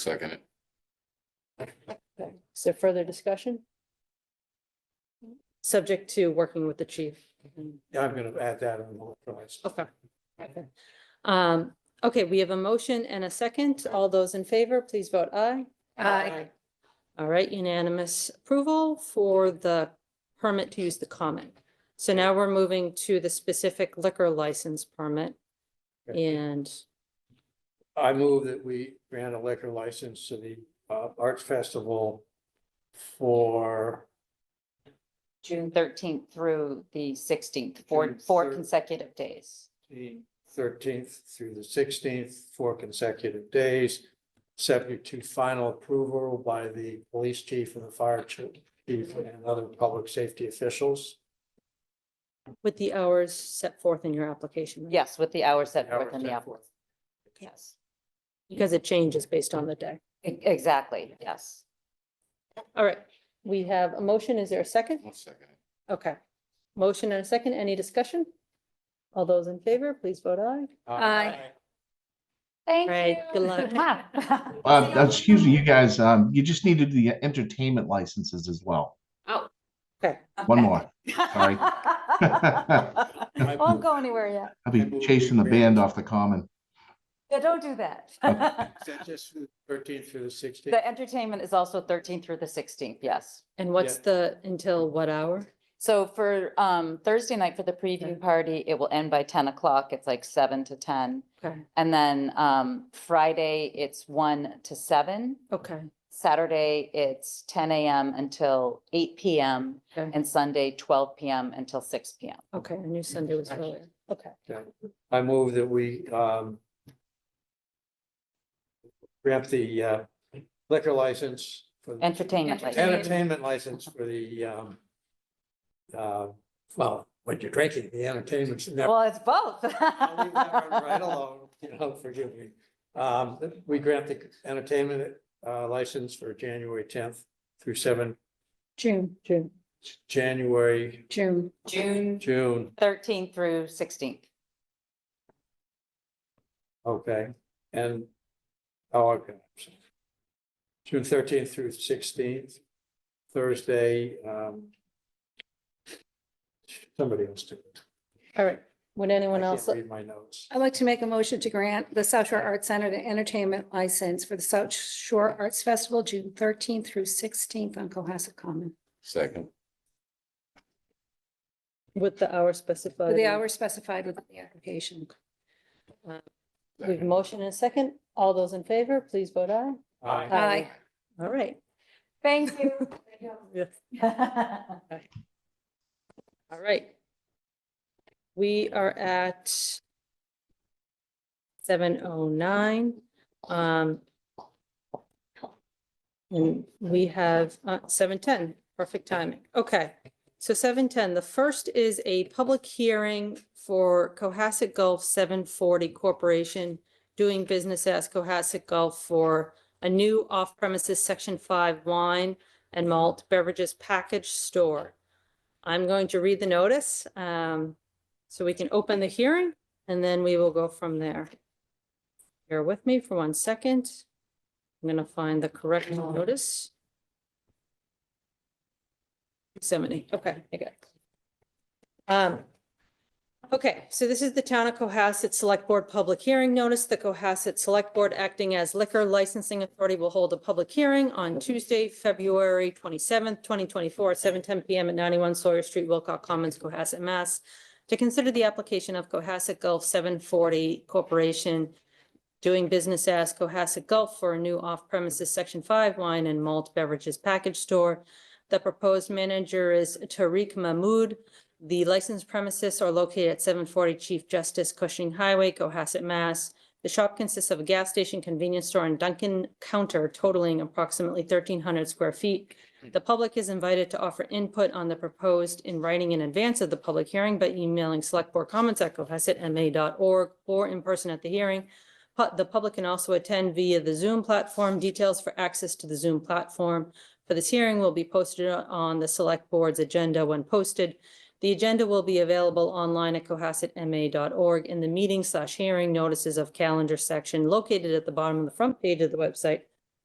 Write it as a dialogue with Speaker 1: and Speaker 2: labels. Speaker 1: Second it.
Speaker 2: Okay, is there further discussion? Subject to working with the chief.
Speaker 3: Yeah, I'm gonna add that on the electrolytes.
Speaker 2: Okay. Okay. Um, okay, we have a motion and a second. All those in favor, please vote aye.
Speaker 4: Aye.
Speaker 2: All right, unanimous approval for the permit to use the common. So now we're moving to the specific liquor license permit and
Speaker 3: I move that we grant a liquor license to the uh Arts Festival for
Speaker 4: June thirteenth through the sixteenth,
Speaker 3: June
Speaker 4: four, four
Speaker 3: thir-
Speaker 4: consecutive days.
Speaker 3: the thirteenth through the sixteenth, four consecutive days. Subject to final approval by the police chief and the fire chief and other public safety officials.
Speaker 2: with the hours set forth in your application. right?
Speaker 4: Yes, with the hours set forth in the
Speaker 3: Hours set
Speaker 4: app.
Speaker 3: forth.
Speaker 4: Yes,
Speaker 2: Because it changes based on the day.
Speaker 4: E- exactly, yes.
Speaker 2: All right, we have a motion. Is there a second?
Speaker 1: I'll second it.
Speaker 2: Okay. Motion and a second. Any discussion? All those in favor, please vote aye.
Speaker 4: Aye. Thank
Speaker 2: Right, good luck.
Speaker 4: luck.
Speaker 5: Uh, uh, excuse me, you guys, um, you just needed the entertainment licenses as well.
Speaker 2: Okay.
Speaker 5: One more. sorry.
Speaker 4: Won't go anywhere yet.
Speaker 5: I'll
Speaker 3: I
Speaker 5: be
Speaker 3: move
Speaker 5: chasing
Speaker 3: we
Speaker 5: the band
Speaker 3: grant-
Speaker 5: off the common.
Speaker 4: Yeah, don't do that.
Speaker 3: Is that just thirteenth through the sixteenth?
Speaker 4: The entertainment is also thirteenth through the sixteenth, yes.
Speaker 2: And what's the, until what hour?
Speaker 4: So for um Thursday night for the preview party, it will end by ten o'clock. It's like seven to ten.
Speaker 2: Okay,
Speaker 4: And then um Friday, it's one to seven.
Speaker 2: okay,
Speaker 4: Saturday, it's ten AM until eight PM
Speaker 2: okay,
Speaker 4: and Sunday, twelve PM until six PM.
Speaker 2: okay. I knew Sunday was
Speaker 3: Actually-
Speaker 2: earlier. Okay,
Speaker 3: I move that we um. Grant the uh, liquor license for. the
Speaker 4: Entertainment license.
Speaker 3: Entertainment license for the um. Uh, well, when you're drinking, the entertainment should never.
Speaker 4: Well, it's both.
Speaker 3: I'll leave that one Right alone, you know, forgive me. Um, we grant the entertainment uh license for January tenth through seven,
Speaker 2: June, June,
Speaker 3: January,
Speaker 2: June.
Speaker 4: June
Speaker 3: June,
Speaker 4: thirteenth through sixteenth.
Speaker 3: okay, and. Oh, okay. June thirteenth through sixteenth, Thursday, um. Somebody else do it.
Speaker 2: All right. Would
Speaker 3: I
Speaker 2: anyone
Speaker 3: can't
Speaker 2: else?
Speaker 3: read my notes.
Speaker 6: I'd like to make a motion to grant the South Shore Arts Center the entertainment license for the South Shore Arts Festival, June thirteenth through sixteenth on Cohasset Common.
Speaker 1: Second,
Speaker 2: With the hour specified.
Speaker 6: For the
Speaker 2: in-
Speaker 6: hour specified within the application.
Speaker 2: We have a motion and a second. All those in favor, please vote aye.
Speaker 3: Aye.
Speaker 6: Aye.
Speaker 2: All right.
Speaker 4: Thank you.
Speaker 2: Yes.
Speaker 4: Thank
Speaker 2: All right. We are at seven oh nine. Um, and we have uh, seven ten, perfect timing. Okay. So seven ten, the first is a public hearing for Cohasset Gulf seven forty Corporation doing business as Cohasset Gulf for a new off-premises section five wine and malt beverages package store. I'm going to read the notice, um, so we can open the hearing and then we will go from there. Bear with me for one second. I'm gonna find the correct notice. Yosemite, okay, I got it. Um, okay, so this is the Town of Cohasset Select Board Public Hearing Notice. The Cohasset Select Board acting as liquor licensing authority will hold a public hearing on Tuesday, February twenty-seventh, twenty twenty-four, seven ten PM at ninety-one Sawyer Street, Wilcox Commons, Cohasset, Mass. To consider the application of Cohasset Gulf seven forty Corporation doing business as Cohasset Gulf for a new off-premises section five wine and malt beverages package store. The proposed manager is Tariq Mahmood. The licensed premises are located at seven forty Chief Justice Cushing Highway, Cohasset, Mass. The shop consists of a gas station, convenience store, and Dunkin' counter totaling approximately thirteen hundred square feet. The public is invited to offer input on the proposed in writing in advance of the public hearing by emailing selectboardcomments@cohassetma.org or in person at the hearing. Pu- The public can also attend via the Zoom platform. Details for access to the Zoom platform for this hearing will be posted on the Select Board's agenda when posted. The agenda will be available online at cohassetma.org in the meeting slash hearing notices of calendar section located at the bottom of the front page of the website